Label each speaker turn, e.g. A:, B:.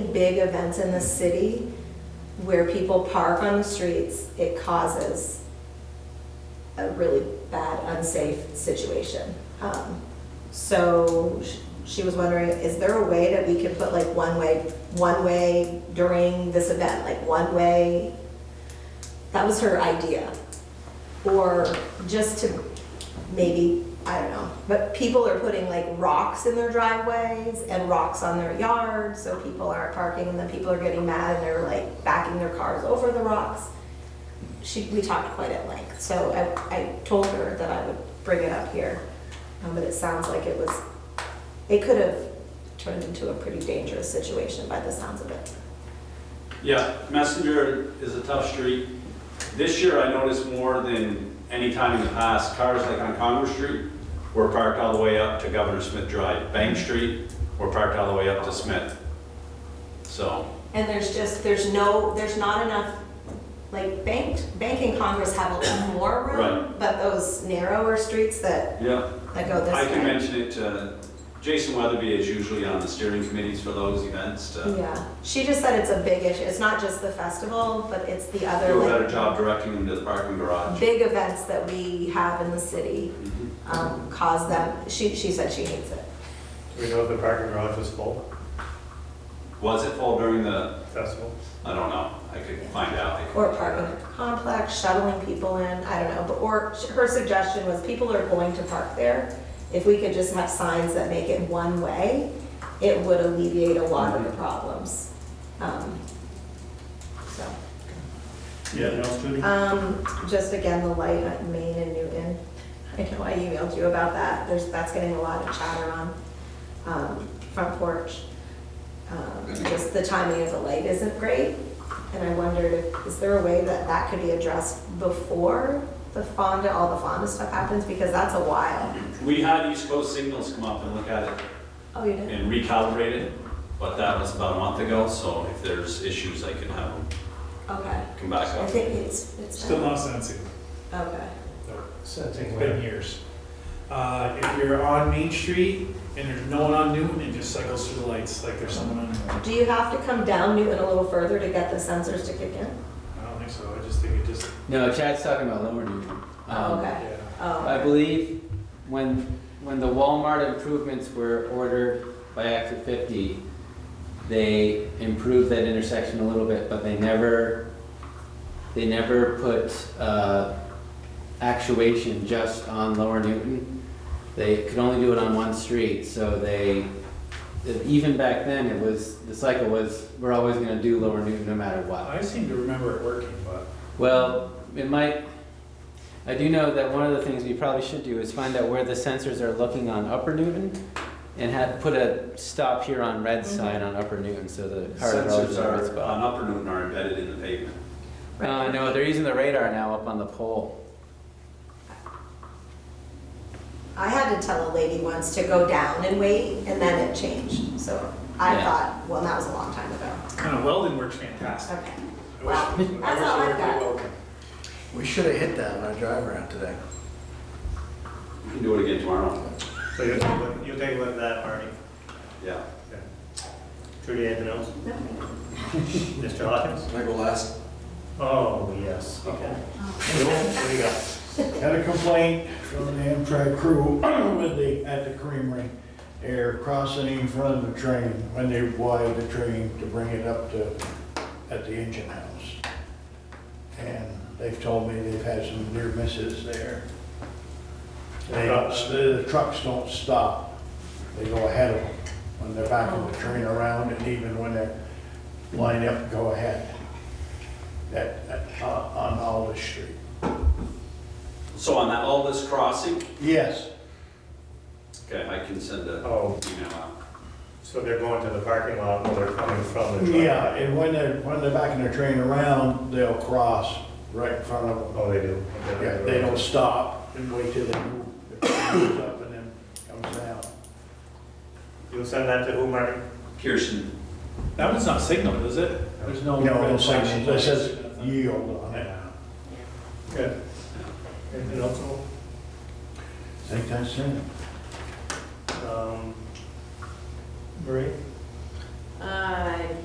A: big events in the city where people park on the streets, it causes a really bad, unsafe situation. Um, So sh- she was wondering, is there a way that we could put like one-way, one-way during this event, like one-way? That was her idea. Or just to maybe, I don't know, but people are putting like rocks in their driveways and rocks on their yards, so people aren't parking, and then people are getting mad and they're like backing their cars over the rocks. She, we talked quite at length, so I, I told her that I would bring it up here, um, but it sounds like it was, it could have turned into a pretty dangerous situation by the sounds of it.
B: Yeah, Messenger is a tough street. This year, I noticed more than any time in the past, cars like on Congress Street were parked all the way up to Governor Smith Drive. Bank Street were parked all the way up to Smith. So,
A: And there's just, there's no, there's not enough, like banked, Bank and Congress have a little more room,
B: Right.
A: but those narrower streets that,
B: yeah,
A: that go
B: I
A: this
B: can
A: way.
B: mention it to, Jason Weatherby is usually on the steering committees for those events to
A: Yeah, she just said it's a big issue, it's not just the festival, but it's the other
B: do a better
A: like
B: job directing them to the parking garage.
A: big events that we have in the city,
B: Mhm.
A: um, cause them, she, she said she hates it.
C: Do we know if the parking garage was full
B: Was it full during the,
C: festival?
B: I don't know, I could find out. I could
A: Or
B: check
A: parking
B: out.
A: at the complex, shuttling people in, I don't know, but, or her suggestion was people are going to park there. If we could just have signs that make it one way, it would alleviate a lot of the problems. Um, So,
C: Yeah, no, student.
A: um, just again, the light at Main and Newton. I know I emailed you about that, there's, that's getting a lot of chatter on, um, front porch. Um, Just the timing of the light isn't great, and I wondered, if is there a way that that could be addressed before the Fonda, all the Fonda stuff happens, because that's a while.
B: We had East Coast Signals come up and look at it
A: Oh, you did?
B: and recalibrate it, but that was about a month ago, so if there's issues, I can have them
A: Okay.
B: come back
A: I
B: up.
A: think it's, it's.
D: Still not sensing.
A: Okay.
C: Sensing
D: It's
C: where?
D: been years. Uh, If you're on Main Street and there's no one on Newton, it just cycles through the lights like there's someone on Newton.
A: Do you have to come down Newton a little further to get the sensors to kick in?
D: I don't think so. I just think it just,
E: No, Chad's talking about Lower Newton. Um,
A: Oh, okay.
D: yeah.
A: Oh.
E: I believe when, when the Walmart improvements were ordered by Act of 50, they improved that intersection a little bit, but they never, they never put uh, actuation just on Lower Newton. They could only do it on one street, so they, even back then, it was, the cycle was, we're always gonna do Lower Newton no matter what.
D: I seem to remember it working, but
E: Well, it might, I do know that one of the things we probably should do is find out where the sensors are looking on Upper Newton and have, put a stop here on red sign on Upper Newton so the cars are always
B: Sensors
E: in the right
B: are, on
E: spot.
B: Upper Newton are embedded in the pavement.
E: Uh, no, they're using the radar now up on the pole.
A: I had to tell a lady once to go down and wait, and then it changed. So I
E: Yeah.
A: thought, well, that was a long time ago.
D: kind of welding works fantastic.
A: Okay.
D: I wish-
A: Well,
D: I wish
A: that's all
D: there
A: I've
D: would be
A: got.
D: welding.
F: We should have hit that on our drive around today.
B: We can do it again tomorrow,
C: So you'll take, a look- you'll take a look at that, Marty.
B: yeah.
C: Trudy, anything else?
A: No.
C: Mr. Hawkins?
F: Can I go last?
C: Oh, yes. Okay.
G: Had
C: What do you got?
G: a complaint from an Amtrak crew with the, at the creamery. They're crossing in front of the train when they wire the train to bring it up to, at the engine house. And they've told me they've had some near misses there. They, the trucks don't stop. They go ahead of them when they're backing the train around and even when they line up, go ahead. That, that, on on Olive Street.
B: So on that Aldous crossing,
G: Yes.
B: okay, I can send a
C: Oh,
B: email out.
C: so they're going to the parking lot while they're coming from the truck?
G: Yeah, and when they're, when they're backing their train around, they'll cross right in front of them.
C: Oh, they do? Okay.
G: Yeah, they don't stop and wait till they move, the train moves up and then comes down.
C: You'll send that to who, Marty?
B: Pearson,
D: That one's not signaled, is it? There's no.
G: No,
D: red
G: it says,
D: flashing
G: it
D: lights
G: says
D: or nothing.
G: yield on it.
D: Yeah.
C: Good. Anything else? Noel?
G: I think that's it.
C: Um, Marie?
A: I